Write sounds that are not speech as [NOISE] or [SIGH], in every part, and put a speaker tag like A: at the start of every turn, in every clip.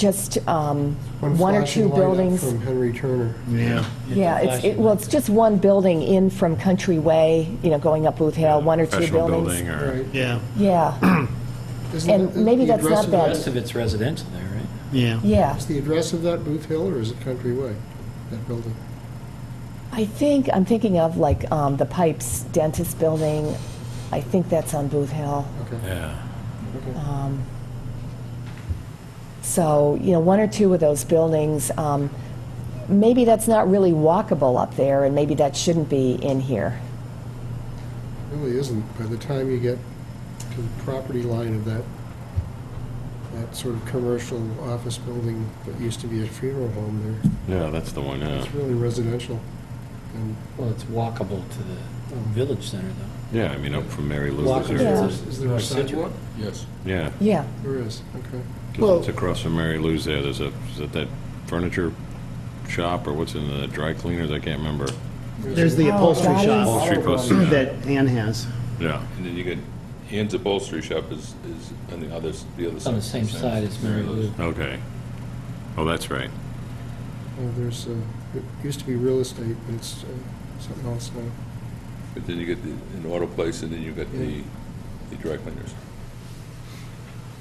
A: just um, one or two
B: flashing light up
A: buildings.
B: From Henry Turner.
C: Yeah.
A: Yeah, it's, it- well, it's just one building in from Country Way, you know, going up Booth Hill, one or two
D: professional
A: buildings.
D: building or,
B: Right.
C: Yeah,
A: Yeah,
B: Isn't
A: And
B: that the-
A: maybe
B: the
A: that's
B: address
A: not
B: of
A: bad.
E: The rest of it's residential there, right?
C: yeah.
A: yeah.
B: Is the address of that Booth Hill, or is it Country Way, that building?
A: I think, I'm thinking of like um, the Pipes Dentist Building. I think that's on Booth Hill. Um,
B: Okay.
D: yeah.
A: So, you know, one or two of those buildings, um, maybe that's not really walkable up there, and maybe that shouldn't be in here.
B: Really isn't. By the time you get to the property line of that, that sort of commercial office building that used to be a funeral home there,
D: Yeah, that's the one, yeah.
B: it's really residential. And
E: Well, it's walkable to the village center, though.
D: Yeah, I mean, up from Mary Lou's.
E: Walkable
A: Yeah.
D: or-
E: to
B: Is is there a
E: North Situate.
B: sidewalk?
D: Yeah,
A: Yeah,
B: There is, okay.
D: 'cause it's across from Mary Lou's there. There's a, is it that furniture shop or what's in the dry cleaners? I can't remember.
C: There's the
A: Oh,
C: upholstery
A: that
C: shop
D: Upholstery post, yeah.
C: that Ann has.
D: Yeah,
F: And then you get Ann's upholstery shop is, is on the other, s- the other side.
E: on the same side as Mary Lou.
D: okay. Oh, that's right.
B: Uh, There's, uh, it used to be real estate, but it's uh, something else now.
F: But then you get the, an auto place, and then you get the, the dry cleaners.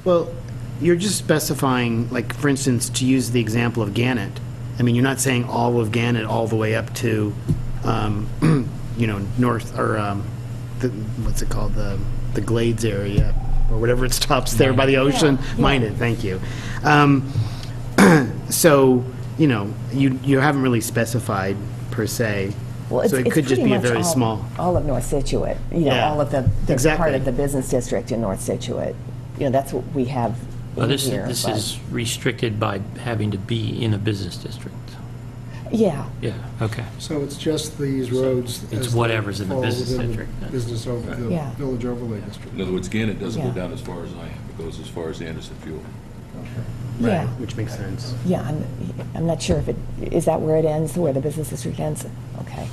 C: Well, you're just specifying, like, for instance, to use the example of Gannett. I mean, you're not saying all of Gannett all the way up to, um, [CLEARS THROAT] you know, north, or, um, the- what's it called, the, the Glades area, or whatever it stops there by the ocean. Minot, thank you. Um, [CLEARS THROAT] So, you know, you, you haven't really specified per se.
A: well, it's,
C: So it
A: it's
C: could just
A: pretty
C: be a
A: much
C: very
A: all-
C: small.
A: All of North Situate, you know,
C: Yeah,
A: all of the, the part
C: exactly.
A: of the business district in North Situate. You know, that's what we have
G: Well,
A: in
G: this,
A: here.
G: this
A: but-
G: is restricted by having to be in a business district.
A: Yeah,
G: Yeah, okay.
B: So it's just these roads.
G: It's
B: as they
G: whatever's in the
B: fall
G: business
B: within the
G: district, yeah.
B: Business over, the
A: Yeah.
B: village overlay district.
F: In other words, Gannett doesn't go
A: Yeah.
F: down as far as I am, it goes as far as Anderson Fuel.
A: yeah,
C: Which makes sense.
A: yeah. I'm, I'm not sure if it, is that where it ends, where the business district ends? Okay.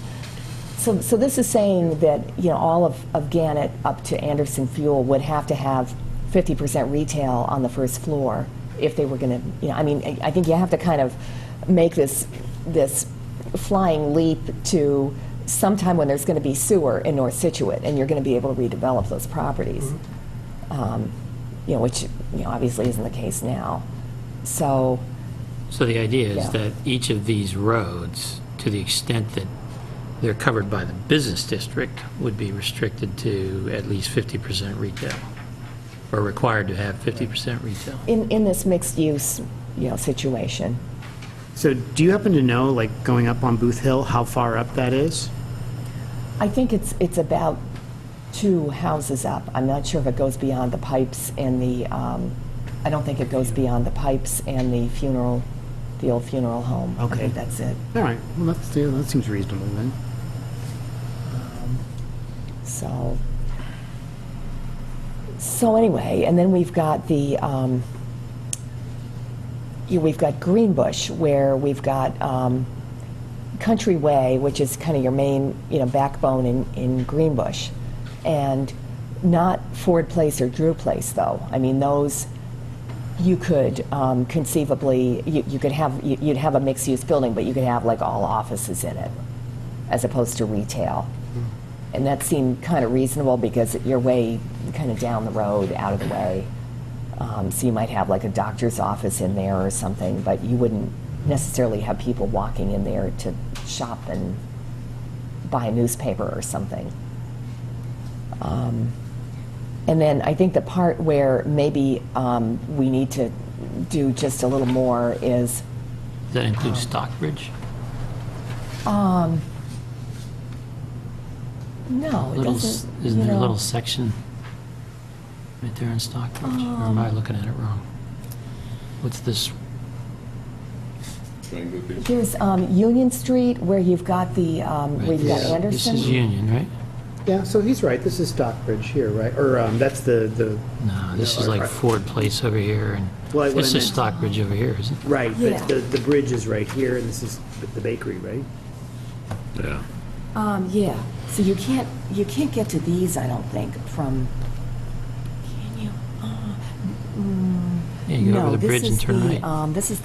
A: So, so this is saying that, you know, all of, of Gannett up to Anderson Fuel would have to have 50% retail on the first floor if they were going to, you know, I mean, I- I think you have to kind of make this, this flying leap to sometime when there's going to be sewer in North Situate and you're going to be able to redevelop those properties. Um, You know, which, you know, obviously isn't the case now. So,
G: So the idea
A: Yeah.
G: is that each of these roads, to the extent that they're covered by the business district, would be restricted to at least 50% retail, or required to have 50% retail.
A: in, in this mixed-use, you know, situation.
C: So do you happen to know, like, going up on Booth Hill, how far up that is?
A: I think it's, it's about two houses up. I'm not sure if it goes beyond the pipes and the, um, I don't think it goes beyond the pipes and the funeral, the old funeral home. I
C: Okay.
A: think that's it.
C: All right, well, that's, yeah, that seems reasonable then.
A: So, so anyway, and then we've got the, um, you, we've got Greenbush, where we've got um, Country Way, which is kind of your main, you know, backbone in, in Greenbush, and not Ford Place or Drew Place, though. I mean, those you could um, conceivably you, you could have you, you'd have a mixed-use building, but you could have like all offices in it, as opposed to retail. And that seemed kind of reasonable because you're way kind of down the road, out of the way. Um, so you might have like a doctor's office in there or something, but you wouldn't necessarily have people walking in there to shop and buy a newspaper or something. Um, and then I think the part where maybe um, we need to do just a little more is
G: Does that
A: Oh.
G: include Stockbridge?
A: no, it
G: Little, s-
A: doesn't.
G: isn't
A: you
G: there a
A: know.
G: little section right there in Stockbridge? Or
A: Oh.
G: am I looking at it wrong? What's this,
F: Triangle there.
A: Here's um, Union Street where you've got the um,
G: right,
A: we've got
G: this this
A: Anderson.
G: is Union, right?
C: Yeah, so he's right, this is Stockbridge here, right? Or, um, that's the, the,
G: No, this
C: No,
G: is like
C: right.
G: Ford Place over here, and
C: Well, what I
G: this is
C: meant-
G: Stockbridge over here, isn't it?
C: right,
A: but Yeah. the-
C: the bridge is right here, and this is the bakery, right?
D: Yeah.
A: Um, yeah, so you can't, you can't get to these, I don't think, from, can you? Uh, mm,
G: You go
A: No,
G: over the
A: this
G: bridge and
A: is
G: turn
A: the,
G: right.
A: um, This is